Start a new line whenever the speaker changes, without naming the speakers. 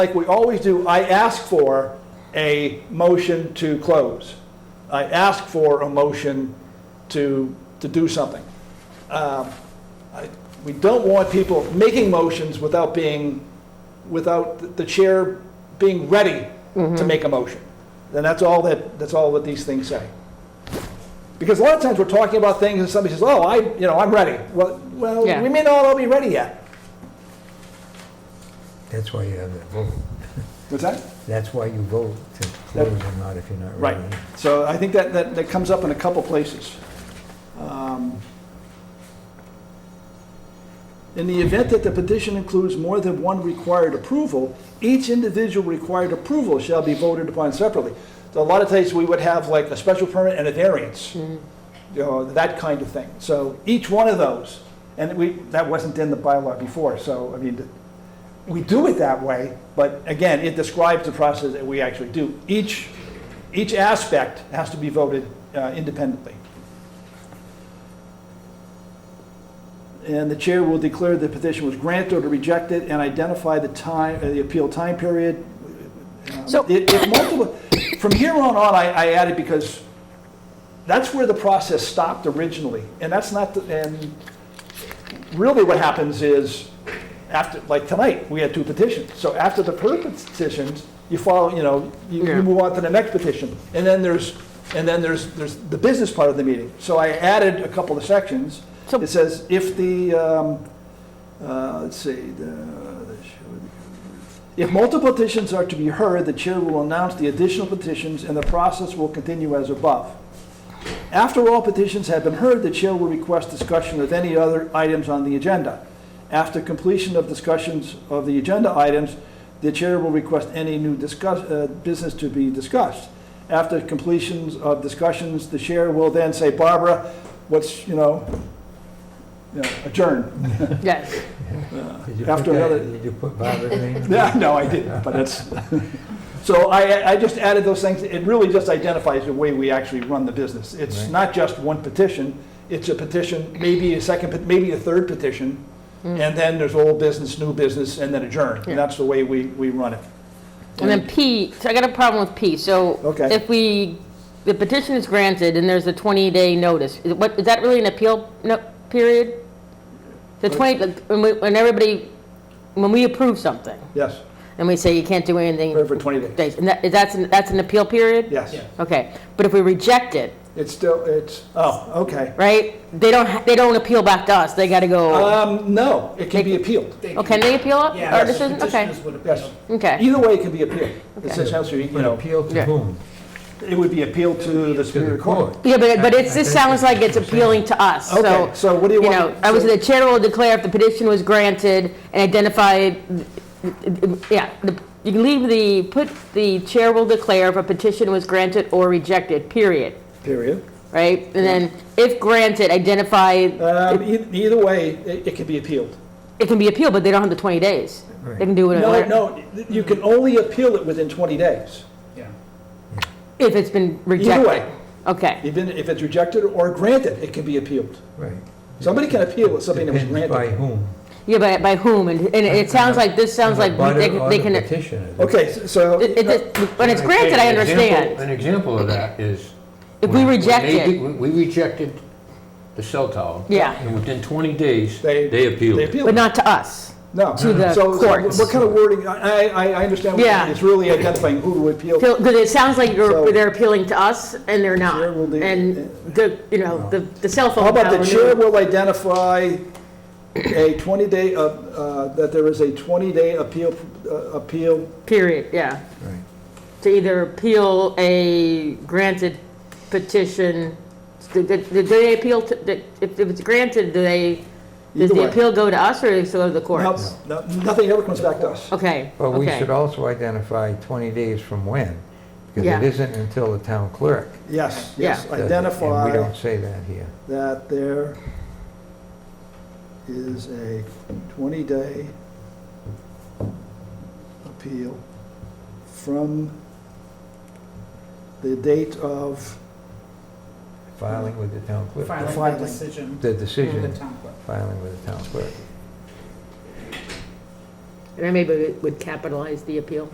like we always do, I ask for a motion to close. I ask for a motion to, to do something. Um, I- We don't want people making motions without being, without the chair being ready to make a motion. And that's all that, that's all that these things say. Because a lot of times we're talking about things and somebody says, oh, I, you know, I'm ready. Well, well,
Yeah.
we may not all be ready yet.
That's why you have that vote.
Mm-hmm. What's that?
That's why you vote to
That-
close or not if you're not
Right,
ready.
so I think that, that, that comes up in a couple places. Um, In the event that the petition includes more than one required approval, each individual required approval shall be voted upon separately. So a lot of times, we would have like a special permit and a variance, you know, that kind of thing. So each one of those, and we, that wasn't in the bylaw before, so, I mean, we do it that way, but again, it describes the process that we actually do. Each, each aspect has to be voted uh, independently. And the chair will declare the petition was granted or rejected and identify the time, uh, the appeal time period. Um,
So-
If if multiple, from here on on, I, I added because that's where the process stopped originally. And that's not, the- and really what happens is, after, like tonight, we had two petitions. So after the first petitions, you follow, you know, you
Yeah.
you move on to the next petition. And then there's, and then there's, there's the business part of the meeting. So I added a couple of sections.
So-
It says, if the, um, uh, let's see, the, if multiple petitions are to be heard, the chair will announce the additional petitions and the process will continue as above. After all petitions have been heard, the chair will request discussion of any other items on the agenda. After completion of discussions of the agenda items, the chair will request any new discuss, uh, business to be discussed. After completions of discussions, the chair will then say, Barbara, what's, you know, you know, adjourn.
Yes.
Did you
Uh, After
put that-
another-
Did you put Barbara in?
Yeah, no, I didn't, but that's, so I, I just added those things. It really just identifies the way we actually run the business. It's
Right.
not just one petition, it's a petition, maybe a second, pet- maybe a third petition, and then there's old business, new business, and then adjourn.
Mm. Yeah.
And that's the way we, we run it.
And then P, so I got a problem with P, so.
Okay.
If we, the petition is granted and there's a 20-day notice, is what, is that really an appeal no- period? The 20, when we- when everybody, when we approve something
Yes,
and we say you can't do anything.
for for 20 days,
days, And that, is that's, an- that's an appeal period?
yes.
Okay, but if we reject it,
It's still, it's, oh, okay.
right, they don't, ha- they don't appeal back to us, they gotta go,
Um, no, it can be appealed.
Oh, They
oh, can they appeal it?
Yeah,
Or this isn't- Okay,
petitioners would
Yes.
appeal.
okay,
Either way, it can be appealed. It's
Okay.
essentially, you
But
know,
appeal to
Yeah.
whom?
it would be appealed to the
To
Superior
the
Court.
court.
yeah, but, but it's,
I- I
this
think
sounds like it's
that's what
appealing to us, so.
Okay, so what do you
you
want?
know, I was, the chair will declare if the petition was granted and identified, yeah, the- you can leave the, put, the chair will declare if a petition was granted or rejected, period,
Period.
right? And then, if granted, identify,
Um,
it
e- Either way, it it can be appealed.
it can be appealed, but they don't have the 20 days.
Right.
They can do it
No,
later,
no, you can only appeal it within 20 days.
Yeah.
if it's been
Either
rejected.
way,
Okay,
even if it's rejected or granted, it can be appealed.
Right.
Somebody can appeal something that was
Depends by
granted.
whom.
yeah, by, by whom, and, and it sounds like, this sounds like
Butter
they can-
or
they
the
can, it,
petitioner.
Okay, s- so,
it, when it's granted, I
An example-
understand.
An example of that is.
If we
when- when they
reject
did-
it.
We we rejected the cell tower.
Yeah.
And within 20 days,
They-
they appealed.
they
it.
appeal.
But not to us.
no.
to the
So- so
courts.
What kind of wording, I, I I understand, what you're saying.
Yeah.
it's really identifying who to appeal. to.
Because it sounds like
So-
you're, they're appealing to us, and they're not.
Chair will do-
And the, you know, the the cell phone.
How about the
tower
chair
knew.
will identify a 20-day, uh, that there is a 20-day appeal, uh, appeal
Period, yeah.
Right.
To either appeal a granted petition, did did- did they appeal, to- did- if if it's granted, do they, does
Either way.
the appeal go to us, or does it go to the
No,
courts?
no, Nothing ever comes back to us.
Okay,
But we
okay.
should also identify 20 days from when, because
Yeah.
it isn't until the town clerk.
Yes,
Yeah.
yes,
does it, And we
identify
don't say that here.
that there is a 20-day appeal from the date of,
Filing with the town clerk.
Filing
filing.
the decision
The
Mm-hmm.
with the
decision,
town clerk.
filing with the town clerk.
And I maybe would capitalize the appeal.